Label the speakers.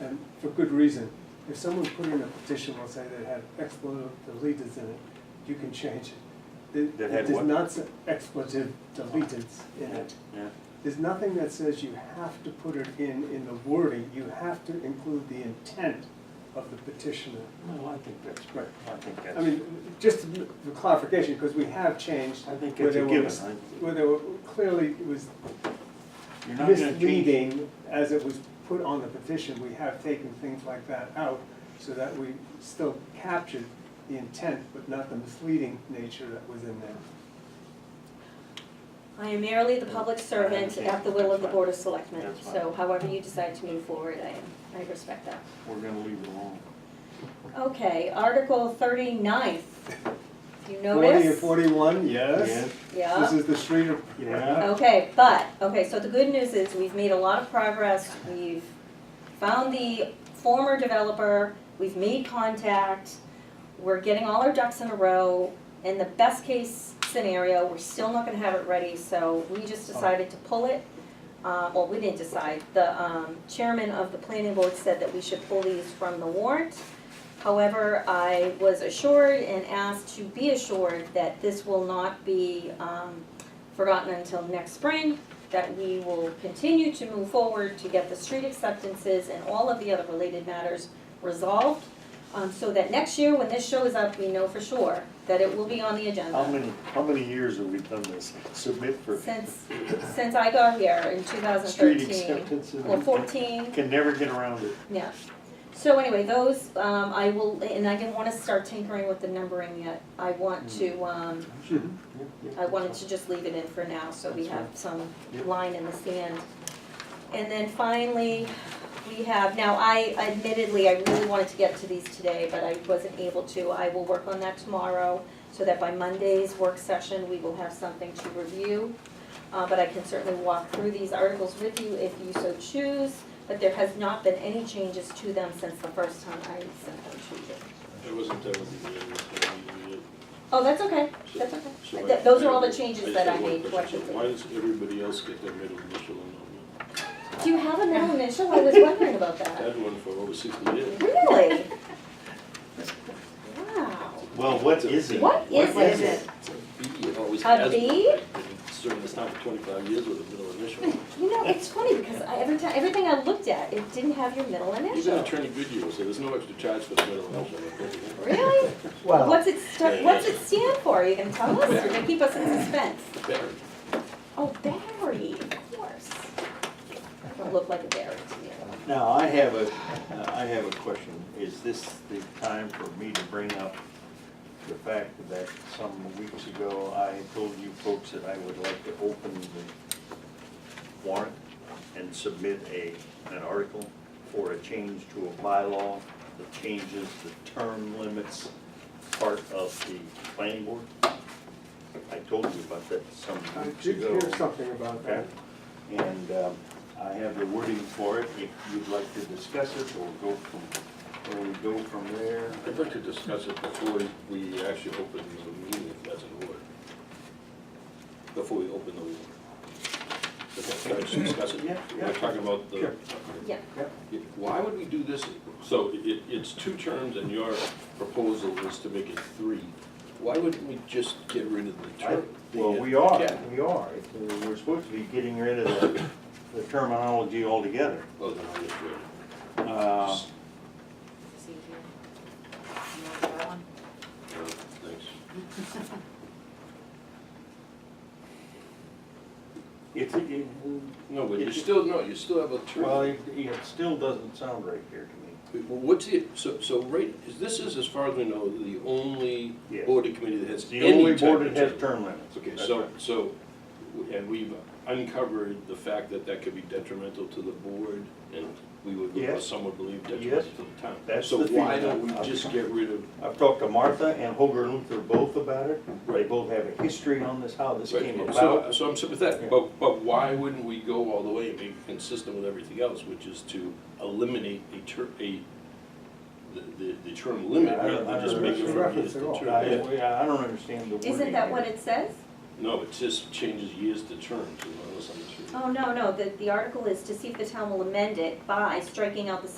Speaker 1: and Um, for good reason. If someone put in a petition, let's say, that had expletive deleted in it, you can change it. It-
Speaker 2: That had
Speaker 1: It
Speaker 2: what?
Speaker 1: does not say expletive deleted in it.
Speaker 2: Yeah,
Speaker 1: There's nothing that says you have to put it in, in the wording, you have to include the intent of the petitioner.
Speaker 2: no, I think that's,
Speaker 1: Right.
Speaker 2: I think that's.
Speaker 1: I mean, just for clarification, because we have changed.
Speaker 2: I think
Speaker 1: where
Speaker 2: it's a
Speaker 1: there
Speaker 2: given,
Speaker 1: was-
Speaker 2: I-
Speaker 1: Where there were, clearly it was
Speaker 2: You're not gonna change-
Speaker 1: misleading as it was put on the petition, we have taken things like that out so that we still captured the intent, but not the misleading nature that was in there.
Speaker 3: I am merely the public servant at the will of the Board of Selectmen,
Speaker 2: That's fine.
Speaker 3: so however you decide to move forward, I, I respect that.
Speaker 2: We're gonna leave it alone.
Speaker 3: Okay, Article thirty-ninth,
Speaker 1: Forty
Speaker 3: you
Speaker 1: and
Speaker 3: notice?
Speaker 1: forty-one, yes.
Speaker 2: Yes.
Speaker 1: This
Speaker 3: Yeah,
Speaker 1: is the street of.
Speaker 2: Yeah.
Speaker 3: okay, but, okay, so the good news is we've made a lot of progress, we've found the former developer, we've made contact, we're getting all our ducks in a row, and the best case scenario, we're still not gonna have it ready, so we just decided to pull it. Uh, well, we didn't decide, the, um, chairman of the planning board said that we should pull these from the warrant. However, I was assured and asked to be assured that this will not be, um, forgotten until next spring, that we will continue to move forward to get the street acceptances and all of the other related matters resolved, um, so that next year, when this shows up, we know for sure that it will be on the agenda.
Speaker 2: How many, how many years have we done this? Submit for
Speaker 3: Since, since I got here in two thousand
Speaker 2: street
Speaker 3: thirteen.
Speaker 2: acceptance and.
Speaker 3: Or fourteen,
Speaker 2: Can never get around it.
Speaker 3: yeah. So anyway, those, um, I will, and I didn't wanna start tinkering with the numbering yet. I want to, um, I wanted to just leave it in for now, so we have some
Speaker 2: Yep.
Speaker 3: line in the sand. And then finally, we have, now I admittedly, I really wanted to get to these today, but I wasn't able to. I will work on that tomorrow, so that by Monday's work session, we will have something to review. Uh, but I can certainly walk through these articles with you if you so choose, but there has not been any changes to them since the first time I sent them to you.
Speaker 4: I wasn't done with the meeting, so we needed-
Speaker 3: Oh, that's okay, that's
Speaker 4: so
Speaker 3: okay.
Speaker 4: I-
Speaker 3: Th- Those are all the
Speaker 4: I
Speaker 3: changes
Speaker 4: just
Speaker 3: that I
Speaker 4: have one
Speaker 3: made
Speaker 4: question.
Speaker 3: collectively.
Speaker 4: So Why does everybody else get their middle initial and not me?
Speaker 3: Do you have a middle initial? I was wondering about
Speaker 4: I've
Speaker 3: that.
Speaker 4: had one for over sixty years.
Speaker 3: Really? Wow.
Speaker 2: Well, what is it?
Speaker 3: What is
Speaker 2: What is
Speaker 3: it?
Speaker 4: It's a B, it always
Speaker 3: A
Speaker 4: has. been.
Speaker 3: B?
Speaker 4: I've been Serving this town for twenty-five years with a middle initial.
Speaker 3: You know, it's funny because I, every time, everything I looked at, it didn't have your middle
Speaker 4: Even
Speaker 3: initial.
Speaker 4: Attorney Goodyear said there's no extra charge for the middle initial. I think.
Speaker 3: Really?
Speaker 5: Well,
Speaker 3: What's it, stu- what's it stand for? Are you gonna tell us? You're gonna keep us in suspense?
Speaker 4: Barry.
Speaker 3: Oh, Barry, of course. Don't look like a Barry to me.
Speaker 2: Now, I have a, uh, I have a question. Is this the time for me to bring up the fact that some weeks ago I told you folks that I would like to open the warrant and submit a, an article for a change to a bylaw that changes the term limits part of the planning board? I told you about that some
Speaker 1: I
Speaker 2: weeks
Speaker 1: did
Speaker 2: ago.
Speaker 1: hear something about
Speaker 2: Okay,
Speaker 1: that.
Speaker 2: and um, I have the wording for it, if you'd like to discuss it, or go from, or we go from there.
Speaker 4: I'd like to discuss it before we actually open the meeting, if that's an order. Before we open the meeting. Can I just discuss it?
Speaker 2: Yeah, yeah.
Speaker 4: We're talking about the.
Speaker 1: Sure.
Speaker 3: Yeah.
Speaker 4: Why would we do this? So it, it's two terms and your proposal is to make it three. Why wouldn't we just get rid of the
Speaker 2: I-
Speaker 4: term?
Speaker 2: Well,
Speaker 4: the, uh,
Speaker 2: we are,
Speaker 4: cap?
Speaker 2: we are, It's, uh, we're supposed to be getting rid of the- the terminology altogether.
Speaker 4: Oh, then I'll just read it.
Speaker 2: Uh,
Speaker 4: Just-
Speaker 6: See here. You want that one?
Speaker 4: no, Thanks.
Speaker 2: It's, it-
Speaker 4: No, but you still, no, you still have a term.
Speaker 2: well, it, it still doesn't sound right here to
Speaker 4: Well, what's it, so, so right, is this is, as far as we know, the only
Speaker 2: Yes.
Speaker 4: board or committee that has
Speaker 2: me.
Speaker 4: any
Speaker 2: The only
Speaker 4: type
Speaker 2: board that
Speaker 4: of
Speaker 2: has
Speaker 4: term.
Speaker 2: term limits.
Speaker 4: Okay,
Speaker 2: That's
Speaker 4: so,
Speaker 2: right.
Speaker 4: so, and we've uncovered the fact that that could be detrimental to the board, and we would, or
Speaker 2: Yes.
Speaker 4: some would believe
Speaker 2: Yes.
Speaker 4: detrimental to the town.
Speaker 2: That's
Speaker 4: So
Speaker 2: the
Speaker 4: why
Speaker 2: feedback.
Speaker 4: don't we just get rid of,
Speaker 2: I've talked to Martha and Holger Luther both about it, they
Speaker 4: Right.
Speaker 2: both have a history on this, how this came
Speaker 4: right,
Speaker 2: about.
Speaker 4: so, so I'm sympathetic,
Speaker 2: Yeah.
Speaker 4: but, but why wouldn't we go all the way and make it consistent with everything else, which is to eliminate a ter, a, the, the, the term limit,
Speaker 2: Yeah, I
Speaker 4: rather
Speaker 2: don't-
Speaker 4: than
Speaker 2: I
Speaker 4: just
Speaker 2: don't
Speaker 4: make it from years
Speaker 1: reference
Speaker 4: to
Speaker 1: at all.
Speaker 4: term?
Speaker 2: I,
Speaker 4: uh, Yeah.
Speaker 2: I don't understand the wording.
Speaker 3: Isn't that what
Speaker 2: here.
Speaker 3: it says?
Speaker 4: No, it just changes years to terms, unless I'm mistaken.
Speaker 3: Oh, no, no, the, the article is to see if the town will amend it by striking out the